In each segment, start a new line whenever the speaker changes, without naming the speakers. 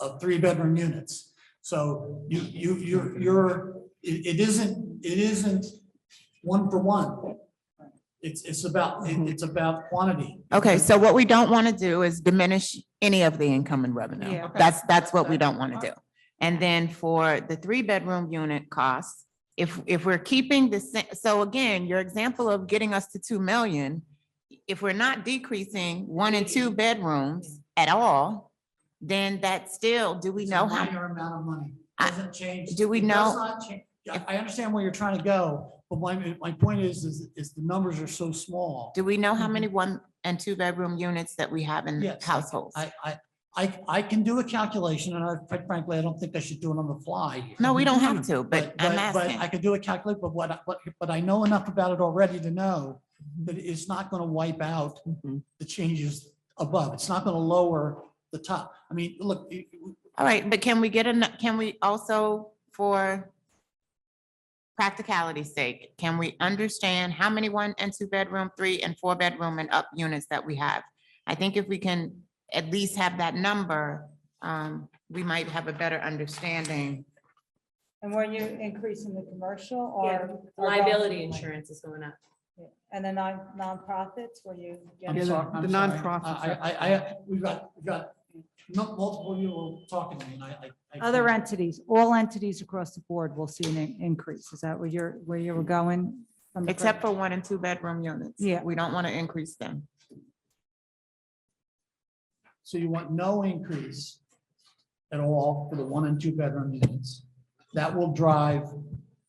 of three-bedroom units. So you, you, you're, you're, it, it isn't, it isn't one for one. It's, it's about, it- it's about quantity.
Okay, so what we don't want to do is diminish any of the income and
Yeah.
revenue.
Okay.
That's, that's what we
That's
don't want to
fine.
do. And then for the three-bedroom unit costs, if, if we're keeping the, sa- so again, your example of getting us to two million, if we're not decreasing one and two bedrooms at all, then that's still, do we
It's a
know how?
Minor amount of money,
I-
doesn't change.
do we
it does
know-
not cha- Yeah, I understand where you're trying to go, but my, my point is, is, is the numbers are so small.
Do we know how many one and two bedroom units that we have in
Mm-hmm. Yes, I-
households?
I, I, I, I can do a calculation, and I, quite frankly, I don't think I should do it on the fly.
No, we don't have to, but I'm
Mm-hmm. But I
asking.
could do a calculate, but what, I- but, but I know enough about it already to know that it's not gonna wipe out the changes above. It's not gonna lower the top. I mean, look, it-
All right, but can we get an, can we also, for practicality's sake, can we understand how many one and two bedroom, three and four bedroom and up units that we have? I think if we can at least have that number, um, we might have a better understanding.
And were you increasing the commercial
Yeah,
or? or
Liability
both?
insurance is going up.
And the non, nonprofits, were you?
I'm
Yeah, the-
sorry,
the
I'm sorry.
nonprofits
I, I- I, I, we've got, we've got mu- multiple of you were talking to me, and I, I- I.
Other
can't-
entities, all entities across the board will see an in- increase. Is that where you're, where you were going? from the
Except
first-
for one and two bedroom units.
Yeah.
We don't want to increase them.
So you want no increase at all for the one and two bedroom units. That will drive,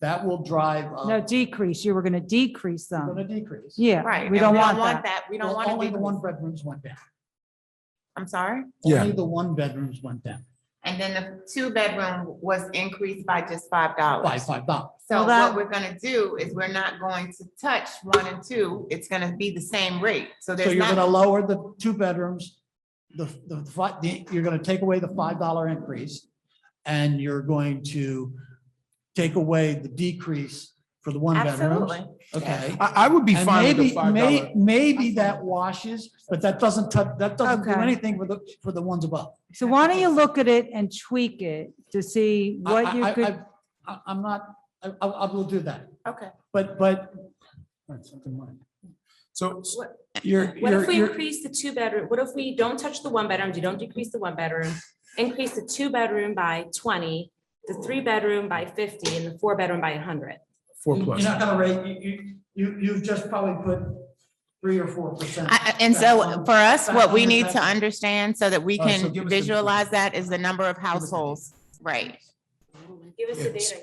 that will drive. up-
No, decrease. You were going to decrease
Going to
them.
decrease.
Yeah.
Right.
We
and
don't want that.
We don't
Well,
want
Only the one
to,
bedrooms went down.
I'm sorry?
Yeah.
Only the one bedrooms went down
And then the two bedroom was increased by just five
by
dollars.
five dollars.
So
Well, that-
what we're gonna do is we're not going to touch one and two. It's gonna be the same rate. So
So
there's
you're gonna
not,
lower the two bedrooms, the, the, fi- the- you're gonna take away the five dollar increase. And you're going to take away the decrease for the one bedrooms.
absolutely.
Okay.
I, I would be
And
fine with the
maybe,
five
may,
dollar.
maybe that washes, but that doesn't touch, that doesn't do
Okay.
anything for the, for the ones above.
So why don't you look at it and tweak it to see
I-
what
I-
you
I-
could,
I- I, I'm not, I, I I will do that,
Okay.
but, but.
So,
You're,
What if
you're,
we
you're,
increase the two bedroom, what if we don't touch the one bedroom, you don't decrease the one bedroom, increase the two bedroom by twenty, the three bedroom by fifty, and the four bedroom by hundred?
four
you're
plus.
not gonna rate, you, you, you, you've just probably put three or four percent.
I- I- And so for us, what we need to
Back on-
understand so that we
Uh, so
can
give us the-
visualize that is the number of households. Right,
Give us the
Yes.
data.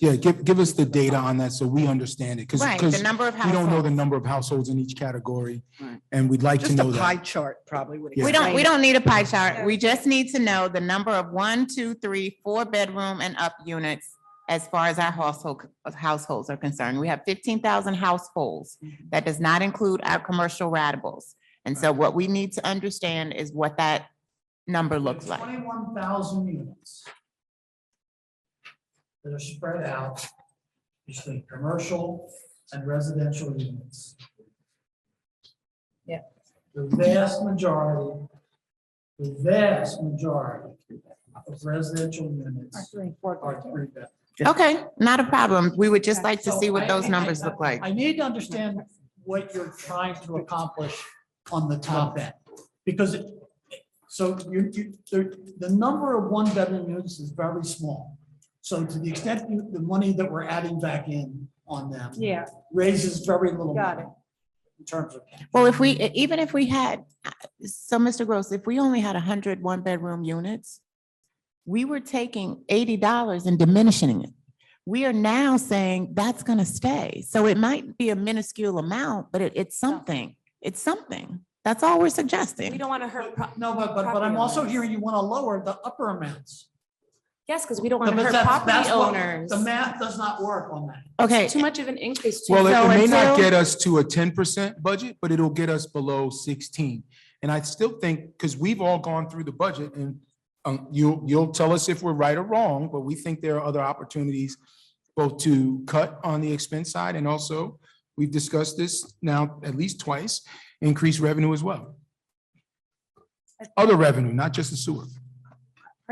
Yeah, give, give us the data on that so we understand it, because,
right. The number of
we don't know the
households.
number of households in each category,
Right.
and we'd like to
Just a
know
pie
that.
chart probably would.
Yeah.
We don't, we don't need a pie chart.
Yeah.
We just need to know the number of one, two, three, four bedroom and up units as far as our household, households are concerned. We have fifteen thousand households. That does not include our commercial ratables. And so what we need to understand is what that number looks like.
Twenty-one thousand units. That are spread out between commercial and residential units.
Yeah.
The vast majority, the vast majority of residential units are three bedrooms.
Okay, not a problem. We would just like to
So
see what
I-
those
I-
numbers look like.
I need to understand what you're trying to accomplish on the top end, because it, so you, you, there, the number of one bedroom units is very small. So to the extent you, the money that we're adding back in on them
yeah,
raises very little
Got
money in terms of.
Well, if
Mm-hmm.
we, e- even if we had, uh, so Mr. Gross, if we only had a hundred one-bedroom units, we were taking eighty dollars and diminishing it. We are now saying that's gonna stay. So it might be a minuscule amount, but it, it's something. It's something. That's all we're
We
suggesting.
don't want to hurt, pro-
No, but, but, but I'm also hearing you want to lower the upper amounts.
yes, because we don't want
But
to hurt
that's-
property
that's what-
owners.
The math does not work on that.
Okay,
Too much of an increase. too.
Well, it-
So
it may not
until-
get us to a ten percent budget, but it'll get us below sixteen. And I still think, because we've all gone through the budget and um, you, you'll tell us if we're right or wrong, but we think there are other opportunities both to cut on the expense side and also, we've discussed this now at least twice, increase revenue as well. Other revenue, not just the sewer.